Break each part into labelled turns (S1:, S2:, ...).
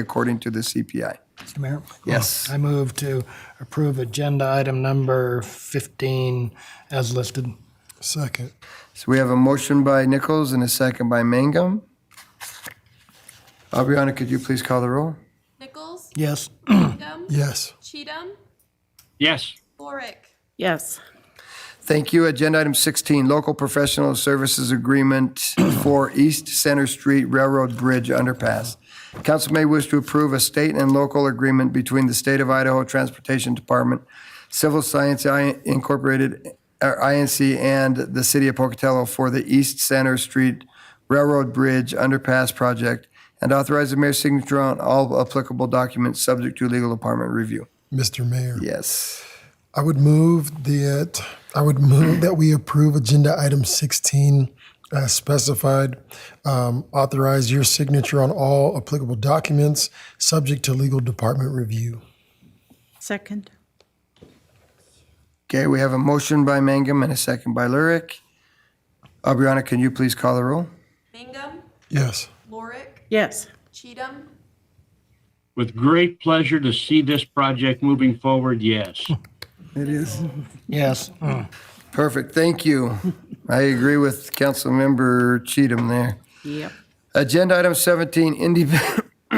S1: according to the CPI.
S2: Mr. Mayor?
S1: Yes.
S2: I move to approve agenda item number 15 as listed.
S3: Second.
S1: So we have a motion by Nichols and a second by Mangum. Aubriana, could you please call the roll?
S4: Nichols?
S2: Yes.
S4: Cheatham?
S3: Yes.
S4: Cheatham?
S5: Yes.
S4: Lorick?
S6: Yes.
S1: Thank you. Agenda item 16, local professional services agreement for East Center Street Railroad Bridge Underpass. Council may wish to approve a state and local agreement between the State of Idaho Transportation Department, Civil Science I- Incorporated, or INC, and the City of Pocatello for the East Center Street Railroad Bridge Underpass Project, and authorize the mayor's signature on all applicable documents subject to legal department review.
S3: Mr. Mayor,
S1: Yes.
S3: I would move that, I would move that we approve agenda item 16 as specified. Um, Authorize your signature on all applicable documents, subject to legal department review.
S6: Second.
S1: Okay, we have a motion by Mangum and a second by Lurick. Aubriana, can you please call the roll?
S4: Mangum?
S3: Yes.
S4: Lorick?
S6: Yes.
S4: Cheatham?
S5: With great pleasure to see this project moving forward, yes.
S1: It is.
S2: Yes. Mm.
S1: Perfect, thank you. I agree with Councilmember Cheatham there.
S6: Yep.
S1: Agenda item 17, independent,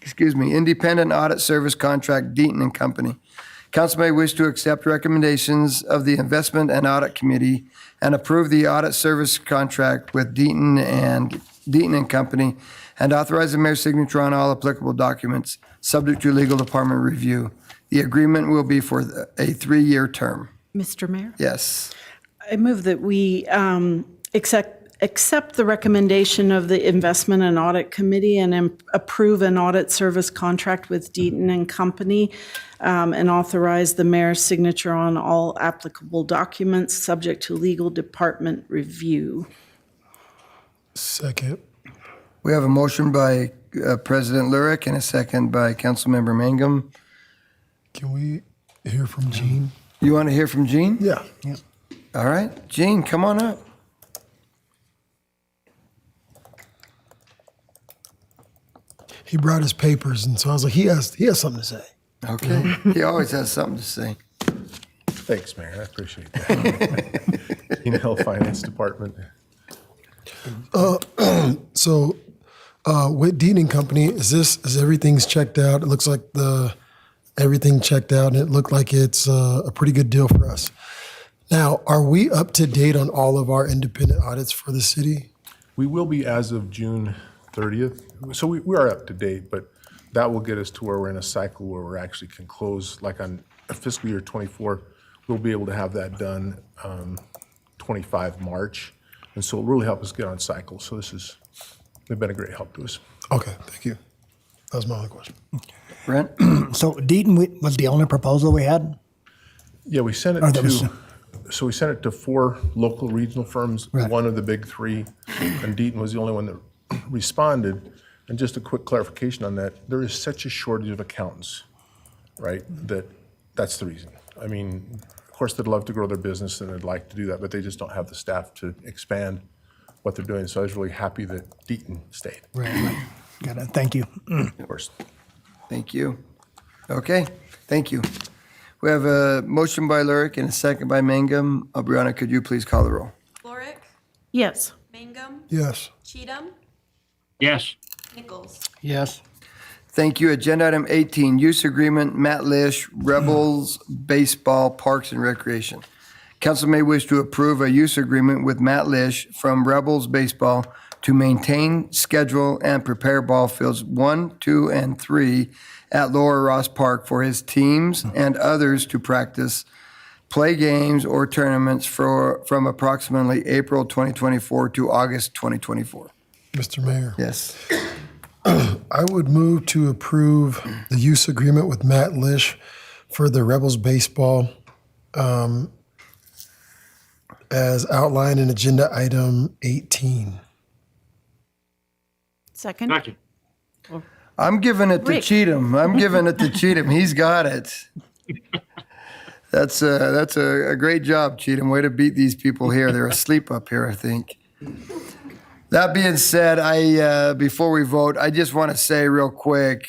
S1: excuse me, Independent Audit Service Contract Deaton and Company. Council may wish to accept recommendations of the Investment and Audit Committee and approve the audit service contract with Deaton and Deaton and Company and authorize the mayor's signature on all applicable documents, subject to legal department review. The agreement will be for a three-year term.
S6: Mr. Mayor?
S1: Yes.
S6: I move that we um, accept, accept the recommendation of the Investment and Audit Committee and im- approve an audit service contract with Deaton and Company um, and authorize the mayor's signature on all applicable documents, subject to legal department review.
S3: Second.
S1: We have a motion by uh, President Lurick and a second by Councilmember Mangum.
S3: Can we hear from Gene?
S1: You want to hear from Gene?
S3: Yeah.
S1: All right, Gene, come on up.
S3: He brought his papers, and so I was like, he has, he has something to say.
S1: Okay. he always has something to say.
S7: Thanks, Mayor. I appreciate that. You know, Finance Department.
S3: So uh, with Dean and Company, is this is everything's checked out? It looks like the everything checked out, and it looked like it's uh, a pretty good deal for us. Now, are we up to date on all of our independent audits for the city?
S7: We will be as of June 30th. So we, we are up to date, but that will get us to where we're in a cycle where we're actually can close, like on fiscal year 24, we'll be able to have that done um, 25 March. And so it'll really help us get on cycle. So this is, they've been a great help to us.
S3: Okay, thank you. That was my only question.
S1: Brent?
S2: So Deaton we- was the only proposal we had?
S7: Yeah, we sent
S2: Or
S7: it
S2: Oh, that was-
S7: to, so we sent it to four local regional firms,
S2: Right.
S7: one of the big three, and Deaton was the only one that responded. And just a quick clarification on that, there is such a shortage of accountants, right, that, that's the reason. I mean, of course, they'd love to grow their business and they'd like to do that, but they just don't have the staff to expand what they're doing. So I was really happy that Deaton stayed,
S2: Right. Got it. Thank you.
S7: of course.
S1: Thank you. Okay, thank you. We have a motion by Lurick and a second by Mangum. Aubriana, could you please call the roll?
S4: Lorick?
S6: Yes.
S4: Mangum?
S3: Yes.
S4: Cheatham?
S5: Yes.
S4: Nichols?
S2: Yes.
S1: Thank you. Agenda item 18, use agreement, Matt Lish, Rebels Baseball Parks and Recreation. Council may wish to approve a use agreement with Matt Lish from Rebels Baseball to maintain, schedule, and prepare ball fields one, two, and three at Lower Ross Park for his teams and others to practice, play games or tournaments for, from approximately April 2024 to August 2024.
S3: Mr. Mayor,
S1: Yes.
S3: I would move to approve the use agreement with Matt Lish for the Rebels baseball um, as outlined in agenda item 18.
S6: Second.
S5: Second.
S1: I'm giving it to
S6: Rick.
S1: Cheatham. I'm giving it to Cheatham. He's got it. That's a, that's a, a great job, Cheatham. Way to beat these people here. They're asleep up here, I think. That being said, I uh, before we vote, I just want to say real quick